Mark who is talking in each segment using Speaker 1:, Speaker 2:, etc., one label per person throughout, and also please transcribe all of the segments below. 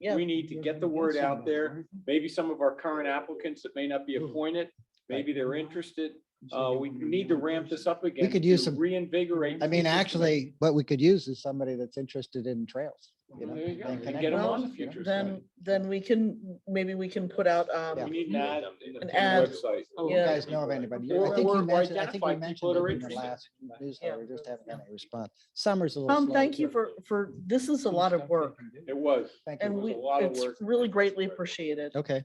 Speaker 1: Yeah.
Speaker 2: We need to get the word out there. Maybe some of our current applicants that may not be
Speaker 1: Hmm.
Speaker 2: appointed, maybe they're interested. Uh, we need to ramp this up again.
Speaker 1: could use
Speaker 2: to
Speaker 1: some-
Speaker 2: Reinvigorate.
Speaker 1: I mean,
Speaker 2: interest in-
Speaker 1: actually, what we could use is somebody that's interested in trails. you know,
Speaker 2: There you go.
Speaker 1: and
Speaker 2: And
Speaker 1: connect
Speaker 2: get 'em
Speaker 1: with
Speaker 2: on
Speaker 1: us,
Speaker 2: the
Speaker 1: you know?
Speaker 2: future.
Speaker 3: Then, then we can, maybe we can put out,
Speaker 2: We
Speaker 3: um,
Speaker 2: need an ad in the
Speaker 3: An ad. Oh,
Speaker 2: website.
Speaker 1: You
Speaker 3: Yeah.
Speaker 1: guys know of anybody. You-
Speaker 2: Or-
Speaker 1: I think
Speaker 2: or-
Speaker 1: you
Speaker 2: or
Speaker 1: mentioned, I think
Speaker 2: identify
Speaker 1: you
Speaker 2: people
Speaker 1: mentioned
Speaker 2: that are
Speaker 1: it in your
Speaker 2: interested.
Speaker 1: last newsletter, just haven't gotten any response. Summer's a little.
Speaker 3: Tom,
Speaker 1: slow,
Speaker 3: thank you
Speaker 1: too.
Speaker 3: for, for, this is a lot of work
Speaker 2: It was.
Speaker 1: Thank
Speaker 3: and
Speaker 1: you.
Speaker 2: was
Speaker 3: we,
Speaker 2: a lot of
Speaker 3: it's
Speaker 2: work.
Speaker 3: really greatly appreciated.
Speaker 1: Okay,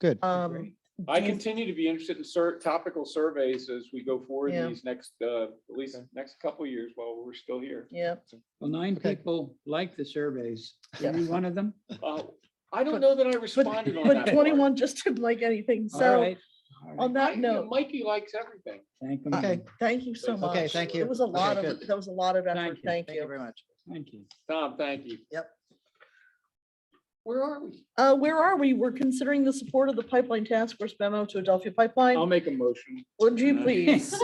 Speaker 1: good.
Speaker 3: Um,
Speaker 2: I
Speaker 3: do you-
Speaker 2: continue to be interested in sur- topical surveys as we go forward
Speaker 3: Yeah.
Speaker 2: in these next, uh, at least next couple of years while we're still here.
Speaker 3: Yeah,
Speaker 4: Well, nine
Speaker 1: Okay.
Speaker 4: people like the surveys.
Speaker 3: Yeah.
Speaker 4: Were you one of them?
Speaker 2: Uh, I
Speaker 3: But-
Speaker 2: don't know that I
Speaker 3: but,
Speaker 2: responded on that.
Speaker 3: but
Speaker 2: part.
Speaker 3: twenty-one just didn't like anything,
Speaker 4: All
Speaker 3: so
Speaker 4: right, all
Speaker 3: on
Speaker 4: right.
Speaker 2: I-
Speaker 3: that
Speaker 2: you know,
Speaker 3: note,
Speaker 2: Mikey likes everything.
Speaker 4: Thank them.
Speaker 1: Okay.
Speaker 4: all.
Speaker 3: thank you so
Speaker 2: Okay,
Speaker 3: much.
Speaker 1: thank you.
Speaker 3: It was a
Speaker 1: Okay,
Speaker 3: lot of,
Speaker 1: good.
Speaker 3: that was a lot of effort,
Speaker 4: Thank you.
Speaker 3: thank
Speaker 1: Thank you
Speaker 3: you.
Speaker 1: very much.
Speaker 4: Thank you.
Speaker 2: Tom, thank you.
Speaker 1: Yep.
Speaker 2: Where are we?
Speaker 3: Uh, where are we? We're considering the support of the Pipeline Task Force memo to Adelphia
Speaker 2: I'll
Speaker 3: Pipeline.
Speaker 2: make a motion.
Speaker 3: Would you please?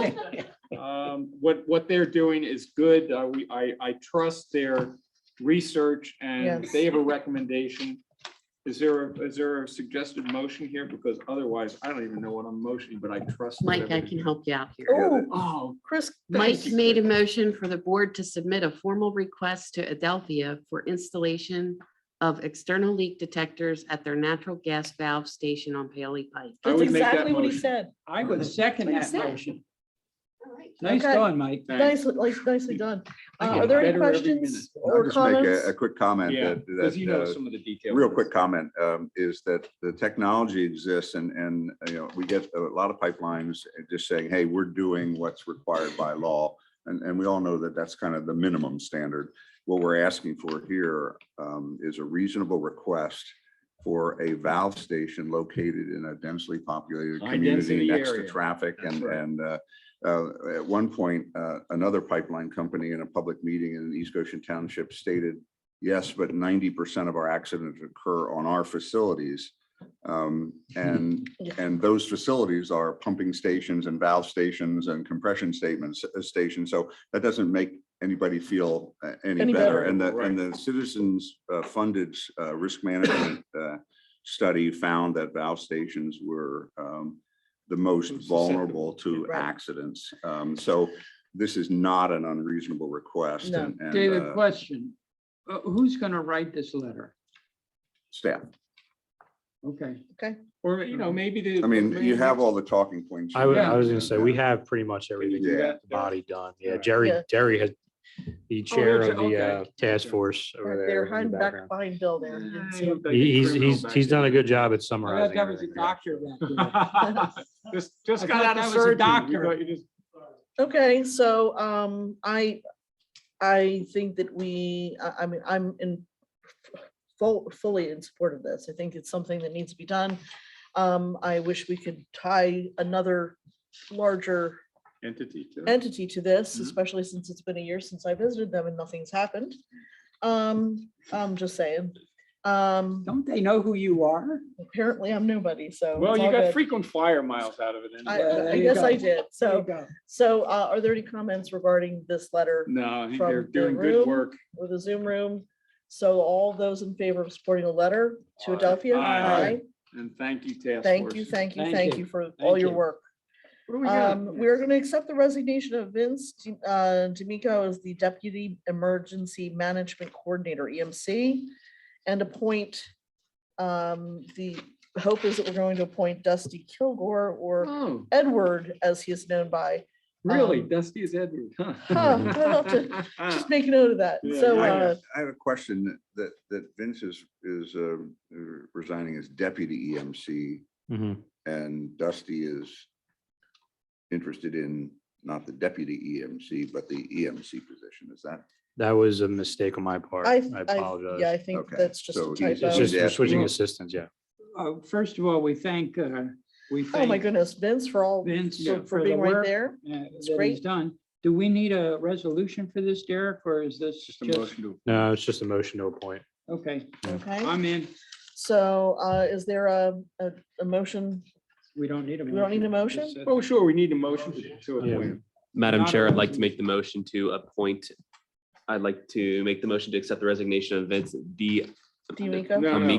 Speaker 2: Um, what, what they're doing is good. Uh, we, I, I trust their research and
Speaker 3: Yes.
Speaker 2: they have a recommendation. Is there, a- is there a suggested motion here? Because otherwise, I don't even know what I'm motioning, but I trust.
Speaker 5: Mike, I
Speaker 2: whatever-
Speaker 5: can help you out here.
Speaker 3: Oh,
Speaker 2: Oh,
Speaker 3: Chris.
Speaker 5: Mike
Speaker 2: you.
Speaker 5: made a motion for the board to submit a formal request to Adelphia for installation of external leak detectors at their natural gas valve station on Paley Pike.
Speaker 2: I
Speaker 3: That's
Speaker 2: would make that
Speaker 3: exactly what he
Speaker 2: motion.
Speaker 3: said.
Speaker 4: I would second
Speaker 5: Like I
Speaker 4: that
Speaker 5: said.
Speaker 4: motion. Nice
Speaker 3: Okay.
Speaker 4: going, Mike.
Speaker 2: thanks.
Speaker 3: Nicely, like, nicely done.
Speaker 4: I
Speaker 3: Uh,
Speaker 4: get
Speaker 3: Are there any
Speaker 4: better every minute.
Speaker 3: questions
Speaker 6: I'll
Speaker 3: or
Speaker 6: just make
Speaker 3: comments?
Speaker 6: a, a quick comment
Speaker 2: Yeah,
Speaker 6: that,
Speaker 2: because you know
Speaker 6: that,
Speaker 2: some of the
Speaker 6: uh,
Speaker 2: details.
Speaker 6: real quick comment, um, is that the technology exists and, and, you know, we get a lot of pipelines just saying, hey, we're doing what's required by law. And, and we all know that that's kind of the minimum standard. What we're asking for here, um, is a reasonable request for a valve station located in a densely populated
Speaker 2: High
Speaker 6: community
Speaker 2: density
Speaker 6: next to
Speaker 2: area.
Speaker 6: traffic
Speaker 2: That's
Speaker 6: and,
Speaker 2: right.
Speaker 6: and, uh, uh, at one point, uh, another pipeline company in a public meeting in East Goshen Township stated, yes, but ninety percent of our accidents occur on our facilities. Um, and,
Speaker 3: Yeah.
Speaker 6: and those facilities are pumping stations and valve stations and compression statements, uh, stations. So that doesn't make anybody feel uh,
Speaker 3: Any
Speaker 6: any better.
Speaker 3: better.
Speaker 6: And the, and the citizens uh, funded uh, risk management uh, study found that valve stations were um, the most
Speaker 2: Susceptible.
Speaker 6: vulnerable to
Speaker 3: Right.
Speaker 6: accidents. Um, So this is not an unreasonable request
Speaker 3: No.
Speaker 6: and, and,
Speaker 4: David,
Speaker 6: uh,
Speaker 4: question. Uh, Who's going to write this letter?
Speaker 6: staff.
Speaker 4: Okay.
Speaker 2: Or, you know, maybe the.
Speaker 6: I mean, you have all the talking points.
Speaker 7: I was,
Speaker 4: Yeah.
Speaker 7: I was gonna say, we have pretty much everything,
Speaker 6: do
Speaker 7: the
Speaker 2: that?
Speaker 7: body done. Yeah,
Speaker 2: Alright.
Speaker 7: Jerry,
Speaker 3: Yeah.
Speaker 7: Jerry had the chair
Speaker 2: there's-
Speaker 7: of the
Speaker 2: okay.
Speaker 7: uh, task force over
Speaker 3: They're
Speaker 7: there. in
Speaker 3: hiding
Speaker 7: the
Speaker 3: back
Speaker 7: background.
Speaker 3: behind Bill there.
Speaker 2: He-
Speaker 7: He- He's, he's, he's done a good job at
Speaker 4: I thought
Speaker 7: summarizing.
Speaker 4: that was a
Speaker 7: everything.
Speaker 4: doctor back there.
Speaker 2: Just, just
Speaker 4: I
Speaker 2: got
Speaker 4: thought
Speaker 2: out
Speaker 4: that
Speaker 2: of
Speaker 4: was a
Speaker 2: surgery. You
Speaker 4: doctor.
Speaker 2: got- you just-
Speaker 3: Okay, so, um, I, I think that we, I, I mean, I'm in full, fully in support of this. I think it's something that needs to be done. Um, I wish we could tie another larger
Speaker 2: Entity. to it.
Speaker 3: entity to this,
Speaker 2: Mhm.
Speaker 3: especially since it's been a year since I visited them and nothing's happened. Um, I'm just saying, um,
Speaker 4: Don't they know who you are?
Speaker 3: apparently I'm nobody, so.
Speaker 2: Well,
Speaker 3: it's
Speaker 2: you
Speaker 3: all
Speaker 2: got
Speaker 3: good.
Speaker 2: frequent flyer miles out of it.
Speaker 3: I, uh,
Speaker 2: anyway.
Speaker 3: I-
Speaker 4: There
Speaker 3: I
Speaker 4: you
Speaker 3: guess I
Speaker 4: go.
Speaker 3: did.
Speaker 4: There you
Speaker 3: So,
Speaker 4: go.
Speaker 3: so, uh, are there any comments regarding this letter
Speaker 2: No, I think
Speaker 3: from
Speaker 2: they're
Speaker 3: the
Speaker 2: doing
Speaker 3: room
Speaker 2: good work.
Speaker 3: with the Zoom room? So all those in favor of supporting the letter to
Speaker 2: Aye.
Speaker 3: Adelphia?
Speaker 2: Aye. And thank you, task force.
Speaker 3: Thank you, thank you,
Speaker 4: Thank
Speaker 3: thank
Speaker 4: you.
Speaker 3: you for all
Speaker 4: Thank
Speaker 3: your
Speaker 4: you.
Speaker 3: work.
Speaker 2: What do we got?
Speaker 3: Um, we're gonna accept the resignation of Vince, D- uh, D'Amico as the Deputy Emergency Management Coordinator, EMC. And appoint, um, the hope is that we're going to appoint Dusty Kilgore or
Speaker 2: Oh,
Speaker 3: Edward, as he is known by.
Speaker 2: really?
Speaker 3: Um,
Speaker 2: Dusty is Edward. huh?
Speaker 3: I'll have Just make a note of that.
Speaker 2: Yeah,
Speaker 3: So,
Speaker 2: yeah,
Speaker 3: uh,
Speaker 6: I have a question that, that Vince is, is um, resigning as deputy EMC
Speaker 7: Mhm.
Speaker 6: and Dusty is interested in not the deputy EMC, but the EMC position. Is that?
Speaker 7: That was a mistake on my part. I
Speaker 3: I, I, yeah,
Speaker 7: apologize.
Speaker 3: I think
Speaker 6: Okay,
Speaker 3: that's just
Speaker 6: so
Speaker 3: a
Speaker 6: he's- it's
Speaker 3: typo.
Speaker 7: It's just, we're
Speaker 6: Yeah.
Speaker 7: switching assistants, yeah.
Speaker 4: Uh, First of all, we thank, uh, we
Speaker 3: Oh, my
Speaker 4: thank
Speaker 3: goodness, Vince, for all,
Speaker 4: Vince
Speaker 3: for-
Speaker 4: for
Speaker 3: for
Speaker 4: the
Speaker 3: being right
Speaker 4: work.
Speaker 3: there.
Speaker 4: uh,
Speaker 3: It's
Speaker 4: that he's
Speaker 3: great.
Speaker 4: done. Do we need a resolution for this, Derek, or is this
Speaker 2: Just a
Speaker 4: just,
Speaker 2: motion to-
Speaker 7: No, it's just a motion to appoint.
Speaker 4: okay,
Speaker 3: Okay,
Speaker 4: I'm in.
Speaker 3: so, uh, is there a, a, a motion
Speaker 4: We don't need a.
Speaker 3: We don't need a
Speaker 4: motion. Just, uh,
Speaker 2: Oh, sure, we need a motion to- to
Speaker 7: Yeah.
Speaker 2: appoint.
Speaker 8: Madam
Speaker 4: Not a
Speaker 8: Chair, I'd like to
Speaker 4: motion.
Speaker 8: make the motion to appoint, I'd like to make the motion to accept the resignation of Vince D.
Speaker 9: Do you make up?
Speaker 8: No,
Speaker 3: From
Speaker 8: no.